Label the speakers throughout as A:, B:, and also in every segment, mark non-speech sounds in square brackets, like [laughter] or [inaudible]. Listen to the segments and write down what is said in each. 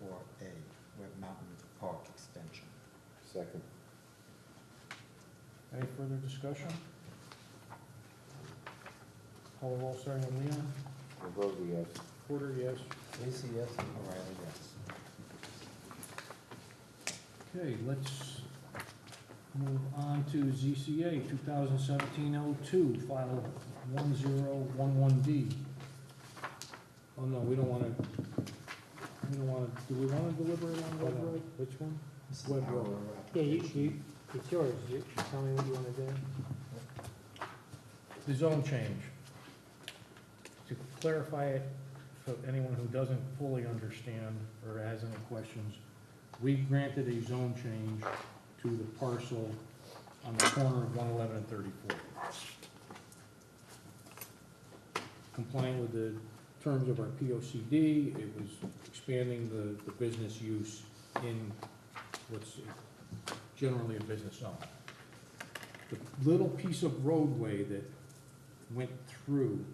A: four A, Web Mountain Park Extension.
B: Second.
C: Any further discussion? Call the roll starting with Leon.
B: Ambrosi, yes.
C: Porter, yes.
A: Lacy, yes. O'Reilly, yes.
C: Okay, let's move on to ZCA 2017-02, file 1011D. Oh, no, we don't want to, we don't want to, do we want to deliver it on Web Road? Which one?
A: This is
C: Web
A: our
C: Road.
D: Yeah, you,
A: application.
D: you, it's yours, you, you tell me what you wanna do.
C: The zone change. To clarify it for anyone who doesn't fully understand or has any questions, we granted a zone change to the parcel on the corner of one eleven and thirty-four. Complying with the terms of our P O C D, it was expanding the, the business use in what's generally a business zone. The little piece of roadway that went through,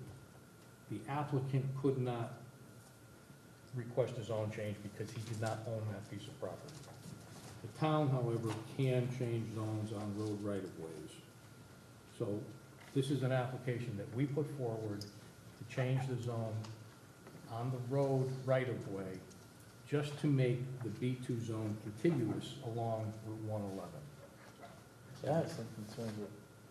C: the applicant could not request his own change because he did not own that piece of property. The town, however, can change zones on road right-of-ways. So this is an application that we put forward to change the zone on the road right-of-way just to make the B2 zone contiguous along Route 111.
E: Yeah, I have some concerns with,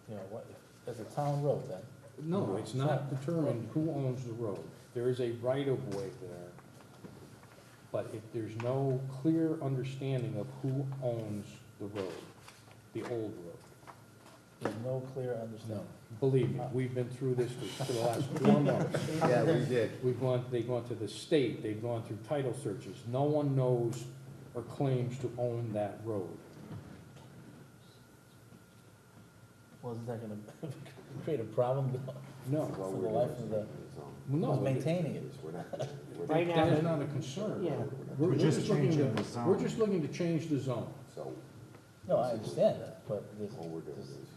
E: you know, what, as a town road then,
C: No, it's not determined who owns the road. There is a right-of-way there, but if there's no clear understanding of who owns the road, the old road.
E: there's no clear understanding.
C: Believe me, we've been through this for for the [laughs] last four months.
B: Yeah, we did.
C: We've gone, they've gone to the state, they've gone through title searches. No one knows or claims to own that road.
E: Well, is that gonna [laughs] create a problem?
C: No,
B: Well,
E: For the
B: we're
E: life
B: not
E: of
B: in
E: the-
B: zone.
C: no.
E: Who's maintaining it?
B: We're not- we're
D: Right
B: not-
D: now-
C: That is not a concern.
D: Yeah.
A: We're
C: We're we're
A: just
C: just looking
A: changing
C: to,
A: the zone.
C: we're just looking to change the zone.
B: So
E: No, I understand that, but there's,
B: all we're doing
E: there's,
B: is.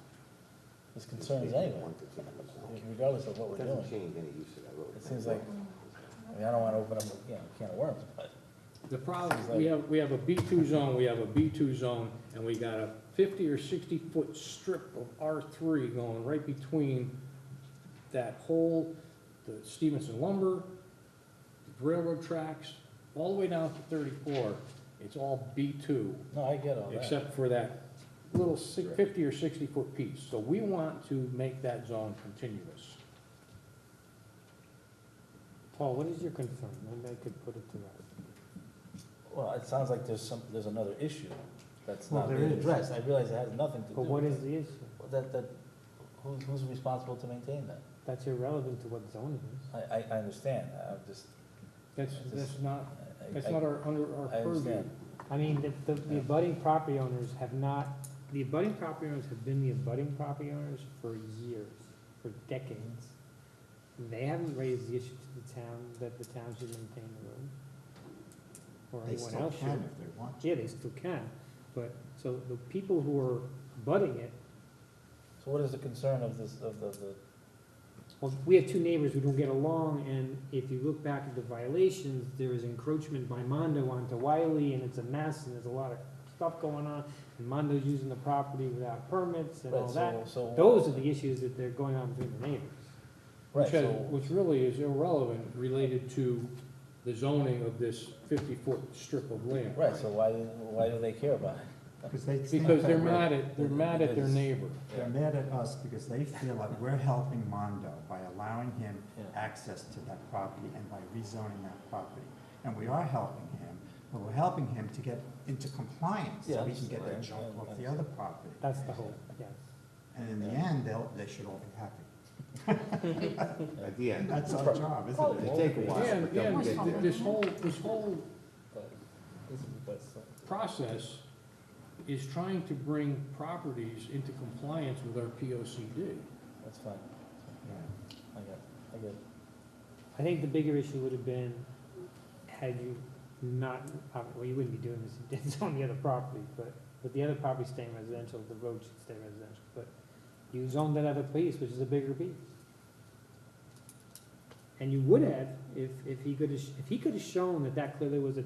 E: there's concerns anyway,
B: One particular zone.
E: regardless of what
B: It
E: we're
B: doesn't
E: doing.
B: change any use of that road.
E: It seems like, I mean, I don't wanna open up, a, you know, a can of worms, but
C: The problem, is we have, we have a B two zone, we have a B two zone, and we got a fifty or sixty foot strip of R three going right between that whole, the Stevenson lumber, railroad tracks, all the way down to thirty-four, it's all B two,
E: no, I get all that.
C: except for that little si- fifty or sixty foot piece. So we want to make that zone continuous.
D: Paul, what is your concern? Maybe I could put it to rest.
E: Well, it sounds like there's some, there's another issue that's
D: Well,
E: not
D: there
E: being
D: is.
E: addressed. I realize it has nothing to do.
D: But what
E: with
D: is
E: it.
D: the issue?
E: Well, That, that, who's, who's responsible to maintain that?
D: That's irrelevant to what zone it is.
E: I, I, I understand, I'm just.
C: That's,
E: That's-
C: that's not,
E: I- I-
C: that's
E: I-
C: not our, under our
E: I
C: purview.
E: understand.
D: I mean, the- the, the abutting property owners have not, the abutting property owners have been the abutting property owners for years, for decades. They haven't raised the issue to the town, that the town should maintain the road. Or
A: They
D: anyone
A: still
D: else should.
A: can if they want to.
D: Yeah, they still can, but, so the people who are abutting it
E: So what is the concern of this, of the, the,
D: Well, we have two neighbors who don't get along, and if you look back at the violations, there is encroachment by Mondo onto Wiley, and it's a mess, and there's a lot of stuff going on, and Mondo's using the property without permits and all
E: right, so,
D: that.
E: so.
D: Those are the issues that they're going on between the neighbors.
E: Right,
C: Which has,
E: so,
C: which really is irrelevant related to the zoning of this fifty-foot strip of land.
E: right, so why, why do they care about it?
A: Because they think
C: Because
A: that
C: they're
A: we're-
C: mad at, they're mad at their neighbor.
A: They're mad at us because they feel like we're helping Mondo by allowing him
E: Yeah.
A: access to that property and by rezoning that property. And we are helping him, but we're helping him to get into compliance,
E: Yeah,
A: so we can get that junk
E: understand. Yeah,
A: off the
E: understand.
A: other property.
D: That's the whole, yes.
A: And in the end, they'll, they should all be happy.
B: At the end.
A: That's our job, isn't it?
B: It'll take a while,
C: Yeah,
B: but
C: yeah,
B: they'll get there.
C: this whole, this whole
E: But this is what's-
C: process is trying to bring properties into compliance with our P O C D.
E: That's fine,
A: Yeah.
E: I get, it. I get. it.
D: I think the bigger issue would have been, had you not, uh, well, you wouldn't be doing this, if [laughs] you did zone the other property, but, but the other property staying residential, the road should stay residential, but you zoned that other piece, which is a bigger piece. And you would have, if, if he could have, if he could have shown that that clearly was a